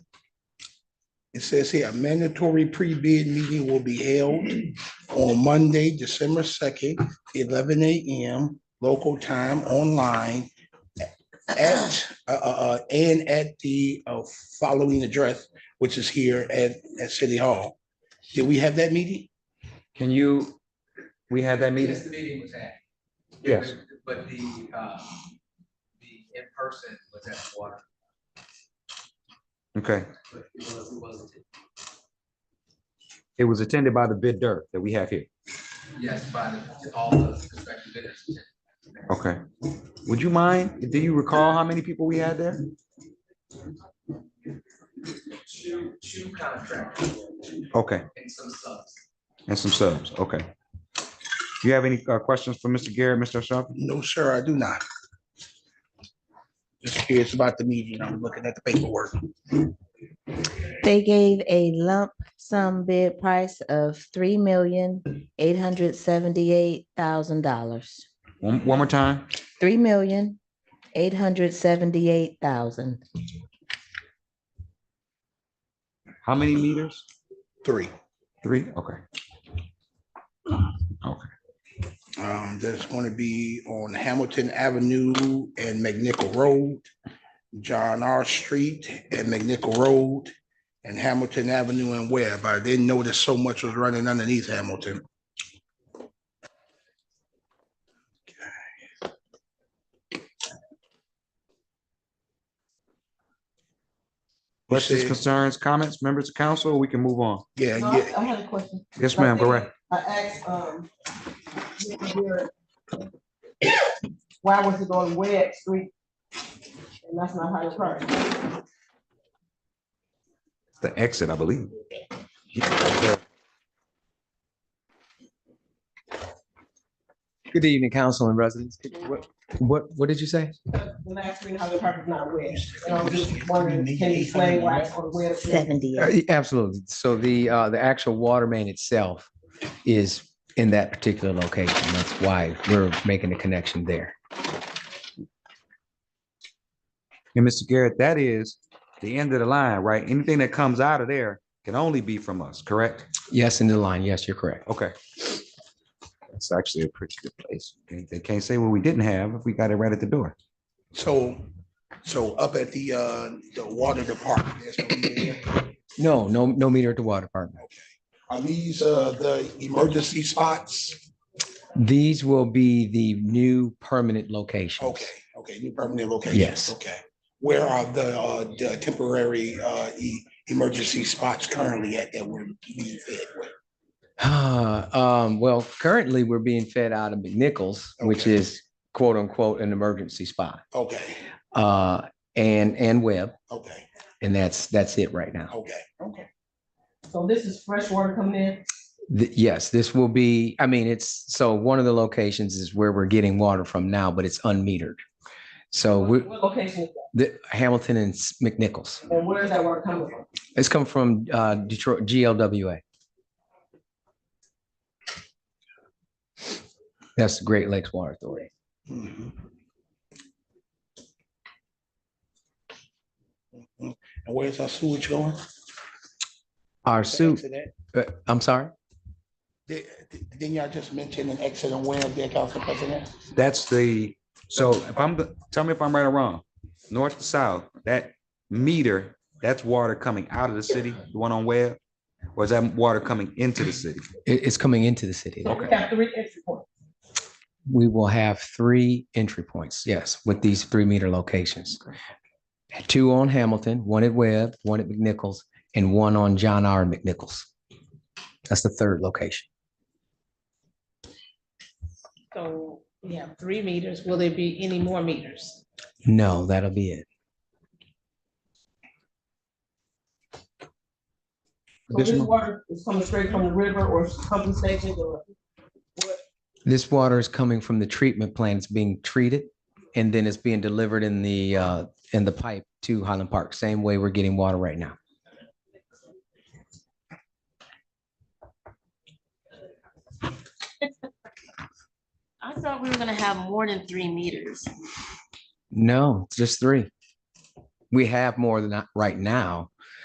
It says here, a mandatory pre-bid meeting will be held on Monday, December second, eleven AM, local time, online at, uh, uh, uh, and at the, uh, following address, which is here at, at City Hall. Did we have that meeting? Can you, we had that Yes, meeting? the meeting was at. Yes. But the, um, the in-person was at water, Okay. but it was, it wasn't, It was attended by the bid dirt that we have here. yes, by the, all the prospective bidders. Okay. Would you mind, do you recall how many people we had there? Two, two contractors Okay, and some subs. and some subs, okay. Do you have any uh, questions for Mr. Garrett, Mr. Sharp? No, sir, I do not. Just curious about the meeting. I'm looking at the paperwork. They gave a lump sum bid price of three million, eight hundred seventy-eight thousand dollars. One, one more time? Three million, eight hundred seventy-eight thousand. How many meters? Three. Three? Okay. Um, that's going to be on Hamilton Avenue and McNichol Road, John R. Street and McNichol Road, and Hamilton Avenue and Webb. I didn't notice so much was running underneath Hamilton. You Questions, said- concerns, comments, members of council? We can move on. Yeah, No, yeah, I I had a question. Yes, ma'am, go right. I asked, um, Mr. Garrett, why was it on Webb Street? And that's not Hyde Park. The exit, I believe. Good evening, council and residents. What, what, what did you say? The last street in Hyde Park is not Webb. And I was just wondering, can you explain why it's on Webb? Street? Uh, Seventy-eight. yeah, Absolutely. So the, uh, the actual water main itself is in that particular location. That's why we're making the connection there. And Mr. Garrett, that is the end of the line, right? Anything that comes out of there can only be from us, correct? Yes, in the line. Yes, you're correct. Okay. That's actually a pretty good place. They- They can't say what we didn't have if we got it right at the door. so, so up at the, uh, the water department. there's no meter there. No, no, no meter at the water department. Are these, uh, the emergency spots? These will be the new permanent locations. Okay, okay, new permanent locations. Yes. Okay. Where are the, uh, the temporary, uh, e- emergency spots currently at that we're being fed with? Um, well, currently we're being fed out of McNichols, which Okay. is quote unquote an emergency spot. Okay, Uh, and, and Webb. okay, And that's, that's it right now. okay. Okay. So this is fresh water coming in? Th- Yes, this will be, I mean, it's, so one of the locations is where we're getting water from now, but it's unmetered. So Oh, we, What location is that? the Hamilton and S- McNichols, And where is that water coming from? it's come from uh, Detroit, GLWA. That's the Great Lakes Water Authority. Mhm. Mhm. And where's our sewage going? Our suit, Accident? uh, I'm sorry, Did- Didn't y'all just mention an exit and where there, Council President? That's the, so if I'm, the- tell me if I'm right or wrong, north to south, that meter, that's water coming out of the city, the one on Webb? Or is that water coming into the city? It- it's coming into the city. We have three entry points. We will have three entry points, yes, with these three meter locations. Two on Hamilton, one at Webb, one at McNichols, and one on John R. McNichols. That's the third location. So we have three meters. Will there be any more meters? No, that'll be it. So this Additional- water is coming straight from the river or pumping stations or? This water is coming from the treatment plant. It's being treated and then it's being delivered in the, uh, in the pipe to Highland Park, same way we're getting water right now. I thought we were gonna have more than three meters. No, it's just three. We have more than that right now,